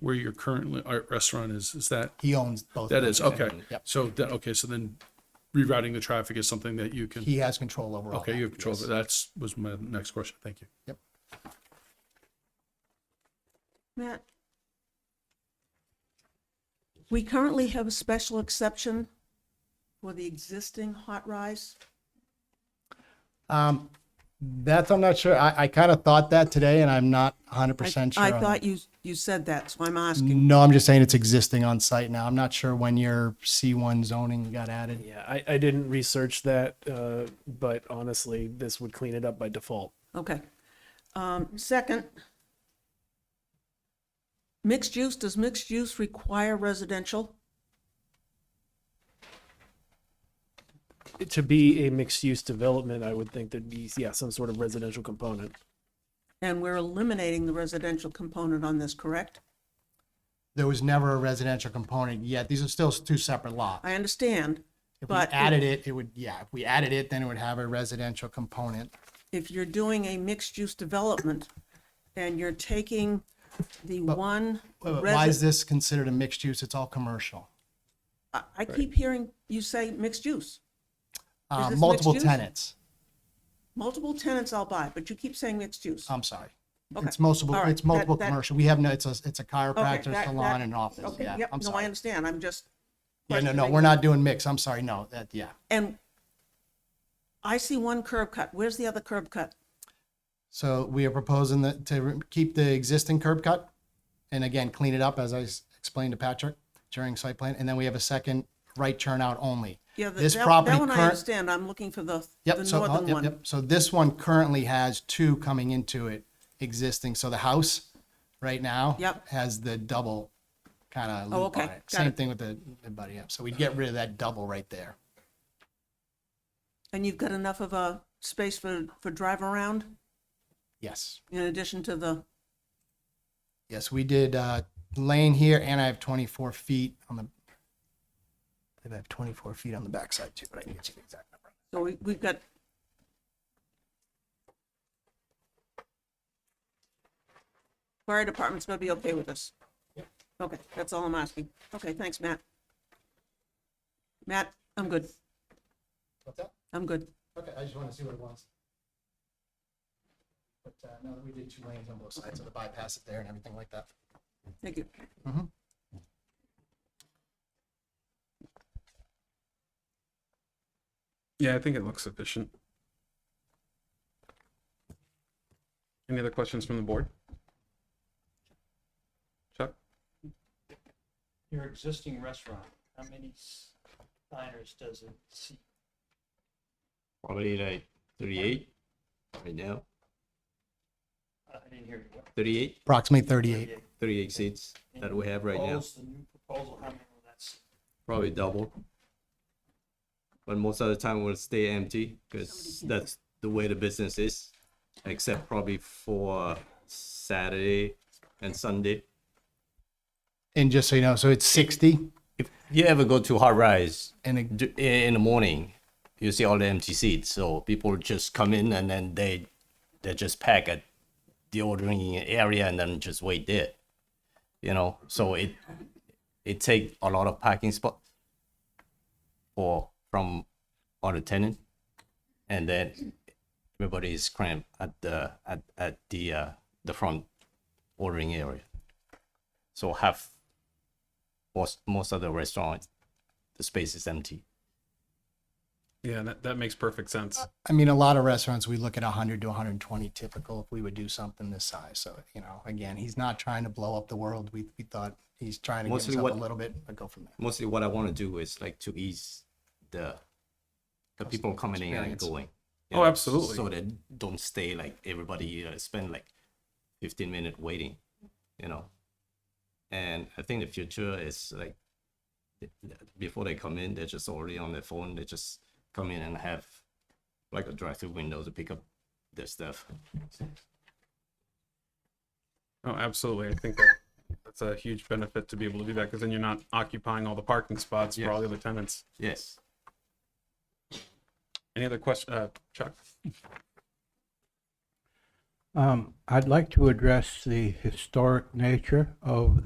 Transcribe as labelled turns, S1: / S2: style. S1: where your current li- art restaurant is? Is that,
S2: He owns both.
S1: that is, okay.
S2: Yep.
S1: So, that- okay, so then rerouting the traffic is something that you can,
S2: He has control over all
S1: okay, you
S2: that.
S1: have control over. That's, was my next question. Thank you.
S3: Matt? We currently have a special exception for the existing hot rise.
S2: Um, that's, I'm not sure. I, I kind of thought that today and I'm not hundred
S3: I-
S2: percent sure.
S3: I
S2: on that.
S3: thought you, you said that, so I'm asking.
S2: No, I'm just saying it's existing on site now. I'm not sure when your C1 zoning got added.
S4: Yeah, I, I didn't research that, uh, but honestly, this would clean it up by default.
S2: Mm.
S3: Okay. Um, second, mixed use, does mixed use require residential?
S4: To be a mixed use development, I would think there'd be, yeah, some sort of residential component.
S3: And we're eliminating the residential component on this, correct?
S2: There was never a residential component yet. These are still two separate lots.
S3: I understand,
S2: If we
S3: but
S2: added it, it would, yeah, if we added it, then it would have a residential component.
S3: if you're doing a mixed-use development and you're taking the one
S2: Wait, wait, Why is
S3: resident,
S2: this considered a mixed use? It's all commercial.
S3: I, I keep hearing you say mixed use.
S2: Uh,
S3: this
S2: multiple
S3: mixed use?
S2: tenants.
S3: Multiple tenants I'll buy, but you keep saying mixed use.
S2: I'm sorry.
S3: Okay.
S2: Um, It's multiple,
S3: All right.
S2: it's multiple
S3: That- that-
S2: commercial. We have no, it's a, it's a
S3: Okay,
S2: chiropractor,
S3: that-
S2: salon
S3: that-
S2: and office.
S3: Okay,
S2: Yeah,
S3: yep,
S2: I'm
S3: no, I
S2: sorry.
S3: understand, I'm just.
S2: Yeah, no, no,
S3: questioning.
S2: we're not doing mix. I'm sorry. No, that, yeah.
S3: And I see one curb cut, where's the other curb cut?
S2: So we are proposing that to re- keep the existing curb cut and again, clean it up as I s- explained to Patrick during site plan. And then we have a second right turnout only.
S3: Yeah, the-
S2: This
S3: that,
S2: property
S3: that one I
S2: current-
S3: understand, I'm looking for the, the
S2: Yep, so, oh,
S3: northern
S2: yep,
S3: one.
S2: yep. So this one currently has two coming into it existing. So the house right now
S3: Yep.
S2: has the double kind of
S3: Oh,
S2: loop on
S3: okay,
S2: it.
S3: got
S2: Same
S3: it.
S2: thing with the, the buddy up. So we'd get rid of that double right there.
S3: And you've got enough of a space for, for drive around
S2: Yes.
S3: in addition to the,
S2: Yes, we did uh, lane here and I have 24 feet on the, I think I have 24 feet on the backside too, but I can get you the exact number.
S3: so we, we've got. Fire department's gonna be okay with this? Okay, that's all I'm asking. Okay, thanks, Matt. Matt, I'm good,
S2: What's that?
S3: I'm good.
S2: Okay, I just want to see what it was. But uh, no, we did two lanes on both sides, so the bypass is there and everything like that.
S3: Thank you.
S2: Mhm.
S5: Yeah, I think it looks sufficient. Any other questions from the board? Chuck?
S6: your existing restaurant, how many s- diners does it seat?
S7: Probably like 38 right now.
S6: I I didn't hear you. What,
S7: 38,
S2: Approximately 38.
S6: 38?
S7: 38 seats
S6: And
S7: that
S6: you
S7: we have right now.
S6: propose The new proposal, how many will that seat?
S7: Probably double. But most of the time we'll stay empty because that's the way the business is, except probably for Saturday and Sunday.
S2: And just so you know, so it's 60
S7: If you ever go to Hot Rise
S2: and it-
S7: d- in the morning, you see all the empty seats. So people just come in and then they they just pack at the ordering area and then just wait there. You know, so it it take a lot of parking spot for from all the tenant, and then everybody is cramped at the at at the uh, the front ordering area. So half most most of the restaurant the space is empty.
S5: Yeah, that, that makes perfect sense.
S2: I mean, a lot of restaurants, we look at 100 to 120 typical if we would do something this size. So, you know, again, he's not trying to blow up the world. We, we thought he's trying to give
S7: Mostly
S2: himself a
S7: what-
S2: little bit, but go from there.
S7: Mostly what I want to do is like to ease the the people coming in and
S2: experience.
S7: going.
S5: Oh, absolutely.
S7: So that don't stay like everybody uh, spend like 15 minute waiting, you know. And I think the future is like th- th- before they come in, they're just already on their phone. They just come in and have like a drive-through window to pick up their stuff.
S5: Oh, absolutely. I think that that's a huge benefit to be able to do that because then you're not occupying all the parking spots for all the other tenants.
S7: Yes.
S5: Any other question, uh, Chuck?
S8: Um, I'd like to address the historic nature of